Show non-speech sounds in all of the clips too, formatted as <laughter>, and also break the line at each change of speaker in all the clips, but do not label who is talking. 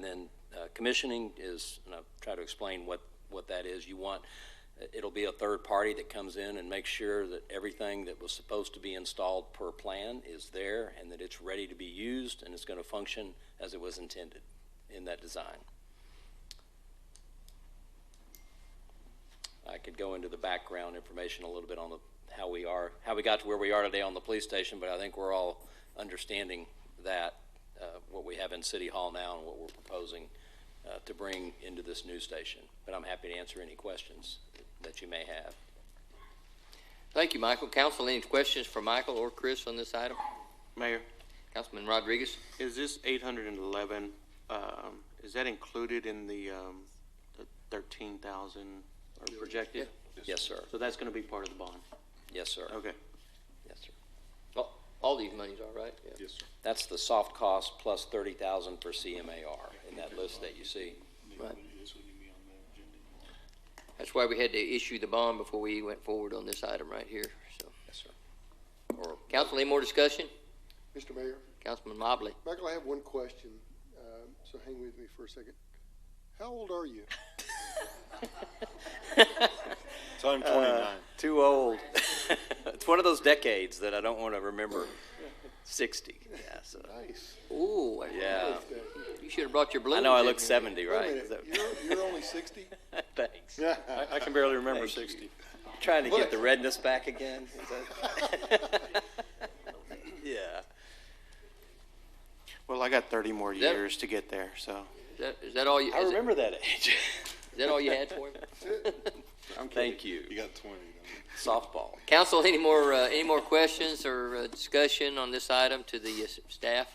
then uh, commissioning is, and I'll try to explain what, what that is. You want, uh, it'll be a third party that comes in and makes sure that everything that was supposed to be installed per plan is there and that it's ready to be used and it's going to function as it was intended in that design. I could go into the background information a little bit on the, how we are, how we got to where we are today on the police station, but I think we're all understanding that, uh, what we have in City Hall now and what we're proposing, uh, to bring into this new station. But I'm happy to answer any questions that you may have.
Thank you, Michael. Council, any questions for Michael or Chris on this item?
Mayor,
Councilman Rodriguez?
is this eight hundred and eleven, um, is that included in the, um, the thirteen thousand or projected?
Yes, sir.
So that's gonna be part of the bond?
Yes, sir.
Okay.
Yes, sir.
All- All these monies are right? Yeah.
Yes, sir.
That's the soft cost plus thirty thousand for CMAR in that list that you see.
Right.
It is when you be on the agenda tomorrow.
That's why we had to issue the bond before we went forward on this item right here, so.
Yes, sir. Or
Council, any more discussion?
Mr. Mayor,
Councilman Mobley?
Michael, I have one question, um, so hang with me for a second. How old
<laughs>
are you?
So I'm
Uh,
twenty-nine.
Uh, Too old. <laughs> it's one of those decades that I don't want to remember. 60. Yeah, so.
Nice.
Ooh, I-
Yeah.
Nice, Dave.
you should have brought your balloons.
I know I
in
look
here.
70,
Wait a
right? Is
minute,
that-
you're, you're only sixty?
<laughs> Thanks.
I, I can barely remember
Thank you.
sixty.
Trying to get
Look.
the redness back again. Is that- <laughs> yeah.
Well, I got thirty more
That-
years to get there,
<laughs>
so.
Is that- Is that all you,
I
is that-
remember that age.
is that all you had for him?
Thank you.
You got twenty, don't you?
Softball.
Council, any more, uh, any more questions or uh, discussion on this item to the uh, s- staff?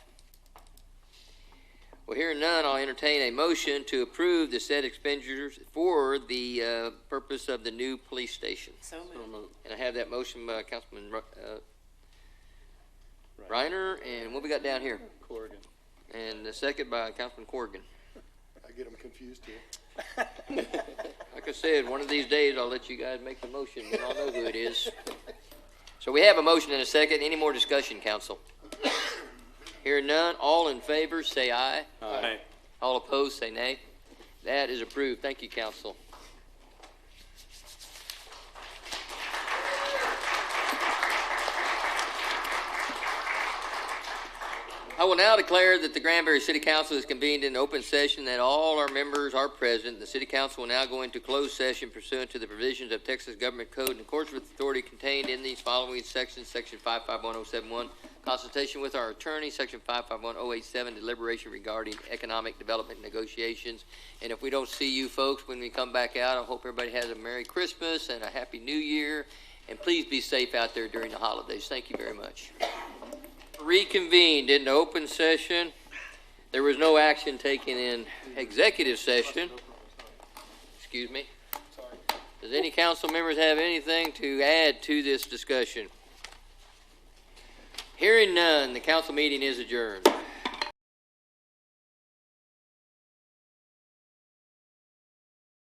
Well, hearing none, I'll entertain a motion to approve the said expenditures for the uh, purpose of the new police station.
So moved.
And I have that motion by Councilman Ru- uh, Reiner, and what we got down here?
Corrigan.
And the second by Councilman Corrigan.
I get them confused too.
Like I said, one of these days, I'll let you guys make the motion, and I'll know who it is.
<laughs>
So we have a motion and a second. Any more discussion, council? <coughs> Hearing none, all in favor, say aye.
Aye.
All opposed, say nay. That is approved. Thank you, council. I will now declare that the Granbury City Council is convened in open session, that all our members are present. The City Council will now go into closed session pursuant to the provisions of Texas Government Code in accordance with authority contained in these following sections, Section 551071, consultation with our attorney, Section 551087, deliberation regarding economic development negotiations. And if we don't see you folks when we come back out, I hope everybody has a Merry Christmas and a Happy New Year. And please be safe out there during the holidays. Thank you very much reconvened into open session. There was no action taken in executive session. Excuse me. Does any council members have anything to add to this discussion? Hearing none, the council meeting is adjourned.